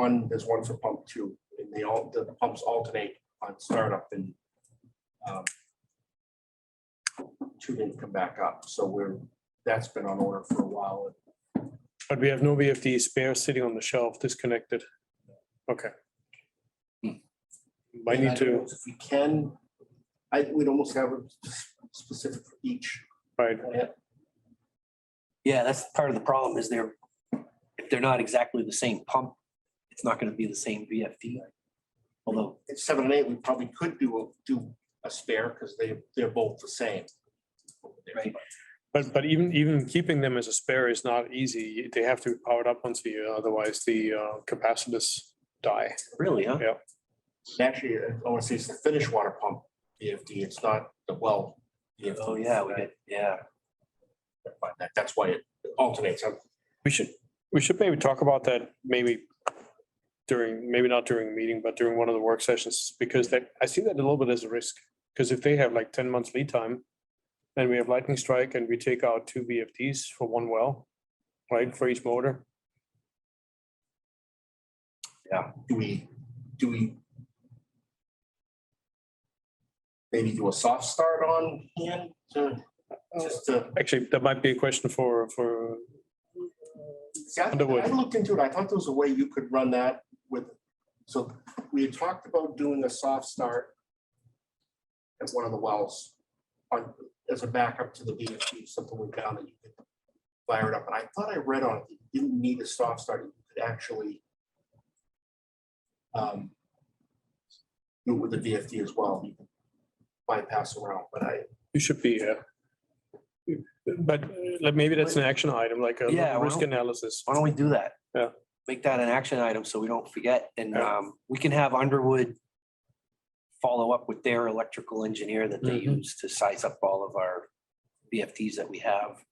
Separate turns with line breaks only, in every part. one, there's one for pump two, and they all, the pumps alternate on startup and um, two didn't come back up, so we're, that's been on order for a while.
But we have no VFD spare sitting on the shelf disconnected. Okay. I
And
need to,
If we can, I, we'd almost have a specific for each.
right,
Yeah, that's part of the problem is they're, if they're not exactly the same pump, it's not gonna be the same VFD. Although,
At seven and eight, we probably could do, a- do a spare, because they, they're both the same.
Right.
but, but even, even keeping them as a spare is not easy. They have to be powered up once a year, otherwise the uh, capacitors die.
really, huh?
Actually, I want to say it's the finished water pump VFD, it's not the well. VFD.
Oh, yeah, we get, yeah.
But that- That's why it alternates. I'm-
We should, we should maybe talk about that maybe during, maybe not during a meeting, but during one of the work sessions, because that, I see that a little bit as a risk. Because if they have like ten months lead time and we have lightning strike and we take out two VFDs for one well, right, for each motor.
Do we, do we? Maybe do a soft start on hand to, just to.
Actually, that might be a question for, for,
See, I I
Underwood.
looked into it. I thought there was a way you could run that with, so we had talked about doing a soft start at one of the wells on, as a backup to the VFD, something we found that you could fire it up. And I thought I read on it, you didn't need a soft start. You could actually um, do it with the VFD as well. You could bypass around, but I,
you should be here. But uh, like, maybe that's an action item, like
Yeah,
a
why
risk
don't-
analysis.
Why don't we do that?
Yeah.
Make that an action item so we don't forget and
Yeah.
um, we can have Underwood follow up with their electrical engineer that they
Mhm.
use to size up all of our VFDs that we have.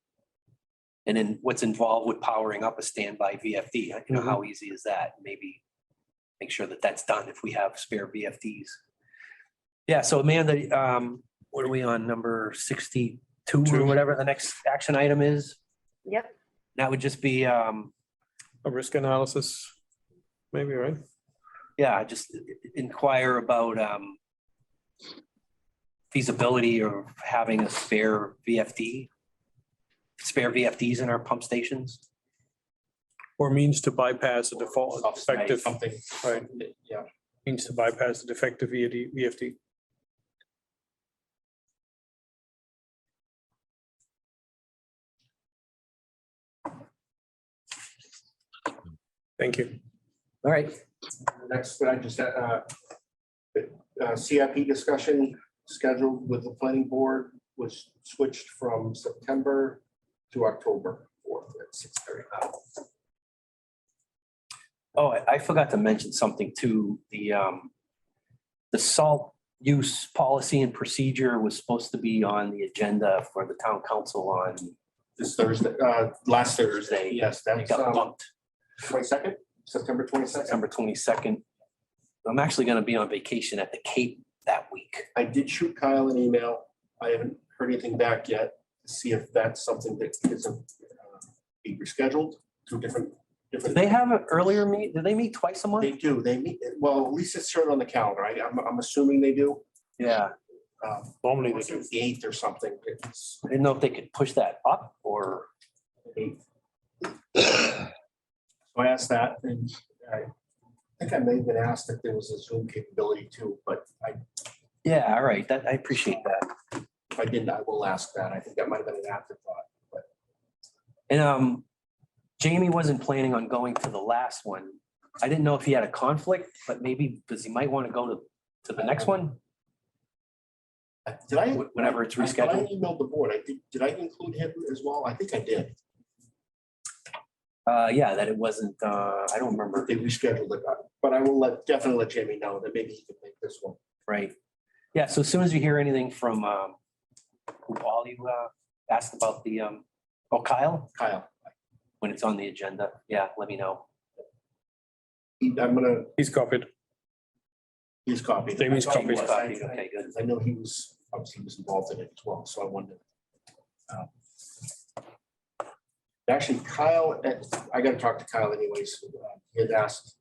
And then what's involved with powering up a standby VFD, you know, how easy is that? Maybe make sure that that's done if we have spare VFDs. Yeah, so Amanda, um, what are we on, number sixty-two or
Two.
whatever the next action item is?
Yep.
That would just be um,
A risk analysis, maybe, right?
yeah, just inquire about um feasibility of having a spare VFD, spare VFDs in our pump stations.
Or means to bypass a default
Soft start,
defective,
Something,
right,
yeah.
means to bypass the defective VFD, VFD. Thank you.
All right.
Next, I just, uh, uh, CIP discussion scheduled with the planning board was switched from September to October fourth at six thirty.
Oh, I- I forgot to mention something too. The um the salt use policy and procedure was supposed to be on the agenda for the town council on
This Thursday, uh, last Thursday,
Thursday.
yes,
it
that's
got bumped.
twenty-second, September twenty-second.
September twenty-second. I'm actually gonna be on vacation at the Cape that week.
I did shoot Kyle an email. I haven't heard anything back yet to see if that's something that is uh, be rescheduled to different,
Do
different.
they have an earlier meet? Do they meet twice a
They
month?
do, they meet, well, at least it's shown on the calendar. I, I'm, I'm assuming they do.
Yeah,
Um,
Normally they
It's
do.
the eighth or something. It's
I didn't know if they could push that up or,
eighth. So I asked that and I think I may have been asked if there was a Zoom capability too, but I,
yeah, all right, that, I appreciate that.
if I didn't, I will ask that. I think that might have been an afterthought.
And um, Jamie wasn't planning on going to the last one. I didn't know if he had a conflict, but maybe, because he might want to go to, to the next one.
Uh, Did I?
Wh- whenever it's
I thought I
rescheduled.
emailed the board. I did, did I include him as well? I think I did.
Uh, yeah, that it wasn't, uh, I don't remember,
They rescheduled it, uh, but I will let, definitely let Jamie know that maybe he can make this one.
right? Yeah, so as soon as you hear anything from, um, who Paul you, uh, asked about the, um, oh, Kyle,
Kyle,
when it's on the agenda, yeah, let me know.
he- I'm gonna,
He's copied.
he's copied.
Jamie's
I thought he
copied.
was. I- I-
Okay, good.
I know he was, obviously he was involved in it as well, so I wondered. Um, Actually, Kyle, eh, I gotta talk to Kyle anyways. uh, He had asked